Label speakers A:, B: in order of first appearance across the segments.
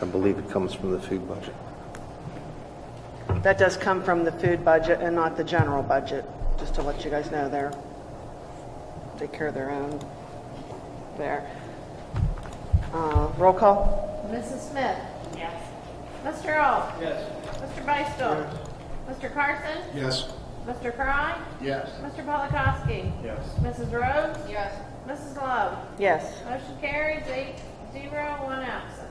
A: I believe it comes from the food budget.
B: That does come from the food budget and not the general budget, just to let you guys know there. Take care of their own there. Uh, Roll call?
C: Mrs. Smith? Yes. Mr. Earl? Yes. Mr. Beistel? Mr. Carson?
D: Yes.
C: Mr. Frye?
D: Yes.
C: Mr. Polakowski?
D: Yes.
C: Mrs. Rhodes? Yes. Mrs. Love?
B: Yes.
C: Motion carries eight zero, one absent.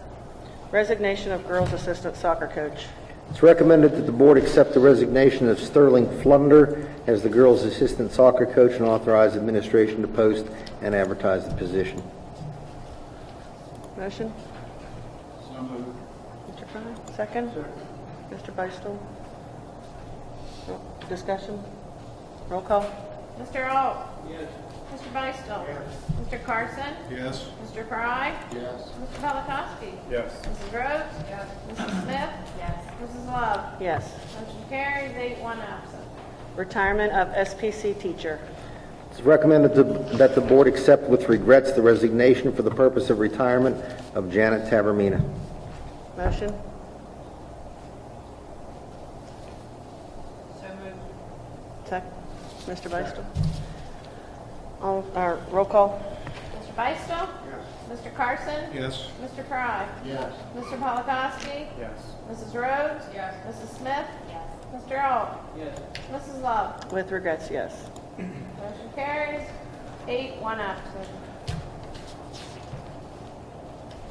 B: Resignation of girls' assistant soccer coach.
E: It's recommended that the board accept the resignation of Sterling Flunder as the girls' assistant soccer coach and authorize administration to post and advertise the position.
B: Motion?
D: So moved.
B: Mr. Frye, second? Mr. Beistel? Discussion? Roll call?
C: Mr. Earl? Yes. Mr. Beistel? Yes. Mr. Carson?
D: Yes.
C: Mr. Frye?
D: Yes.
C: Mr. Polakowski?
D: Yes.
C: Mrs. Rhodes? Yes. Mrs. Smith? Yes. Mrs. Love?
B: Yes.
C: Motion carries eight one absent.
B: Retirement of SPC teacher.
E: It's recommended to- that the board accept with regrets the resignation for the purpose of retirement of Janet Tavermina.
B: Motion? Second. Mr. Beistel? All, uh, roll call?
C: Mr. Beistel? Yes. Mr. Carson?
D: Yes.
C: Mr. Frye?
D: Yes.
C: Mr. Polakowski?
D: Yes.
C: Mrs. Rhodes? Yes. Mrs. Smith? Yes. Mr. Earl? Yes. Mrs. Love?
B: With regrets, yes.
C: Motion carries. Eight, one absent.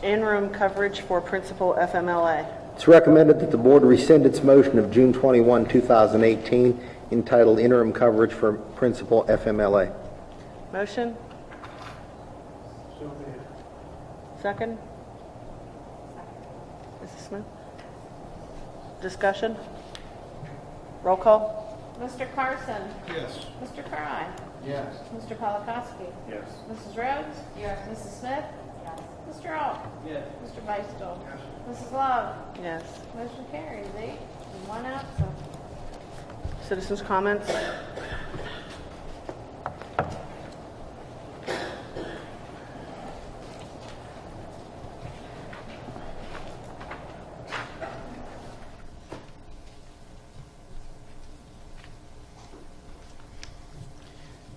B: In-room coverage for principal FMLA.
E: It's recommended that the board rescind its motion of June 21, 2018, entitled interim coverage for principal FMLA.
B: Motion? Second? Mrs. Smith? Discussion? Roll call?
C: Mr. Carson?
D: Yes.
C: Mr. Frye?
D: Yes.
C: Mr. Polakowski?
D: Yes.
C: Mrs. Rhodes? Yes. Mrs. Smith? Yes. Mr. Earl?
D: Yes.
C: Mr. Beistel? Yes. Mrs. Love?
B: Yes.
C: Motion carries. Eight, one absent.
B: Citizens' comments?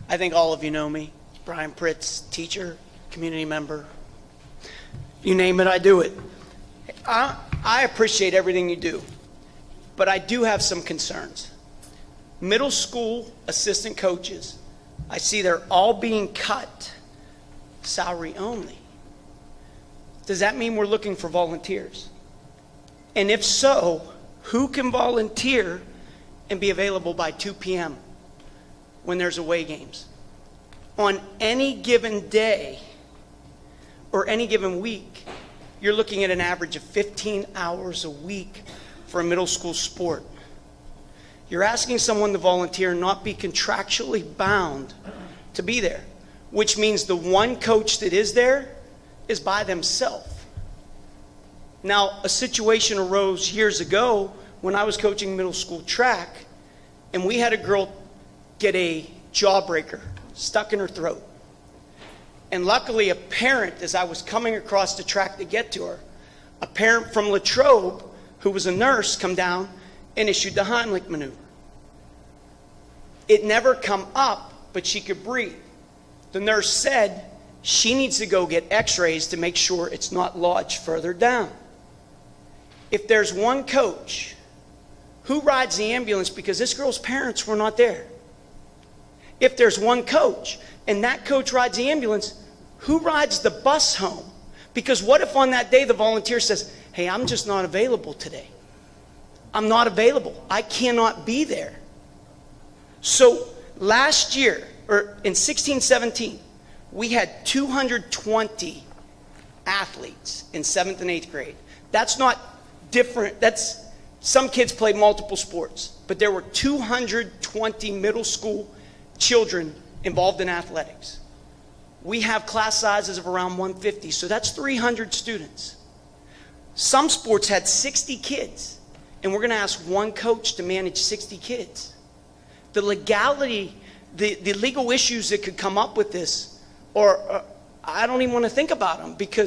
F: I think all of you know me. Brian Pritz, teacher, community member. You name it, I do it. I, I appreciate everything you do, but I do have some concerns. Middle school assistant coaches, I see they're all being cut salary only. Does that mean we're looking for volunteers? And if so, who can volunteer and be available by 2 p.m.? when there's away games. On any given day or any given week, you're looking at an average of 15 hours a week for a middle school sport. You're asking someone to volunteer and not be contractually bound to be there, which means the one coach that is there is by themselves. Now, a situation arose years ago when I was coaching middle school track, and we had a girl get a jawbreaker stuck in her throat. And luckily, a parent, as I was coming across the track to get to her, a parent from Latrobe, who was a nurse, come down and issued the Heimlich maneuver. It never come up, but she could breathe. The nurse said she needs to go get x-rays to make sure it's not lodged further down. If there's one coach who rides the ambulance because this girl's parents were not there. If there's one coach and that coach rides the ambulance, who rides the bus home? Because what if on that day the volunteer says, Hey, I'm just not available today? I'm not available. I cannot be there. So last year, or in 16 17, we had 220 athletes in seventh and eighth grade. That's not different. That's some kids play multiple sports, but there were 220 middle school children involved in athletics. We have class sizes of around 150, so that's 300 students. Some sports had 60 kids, and we're going to ask one coach to manage 60 kids. The legality, the, uh, the legal issues that could come up with this, or, or I don't even want to think about them because.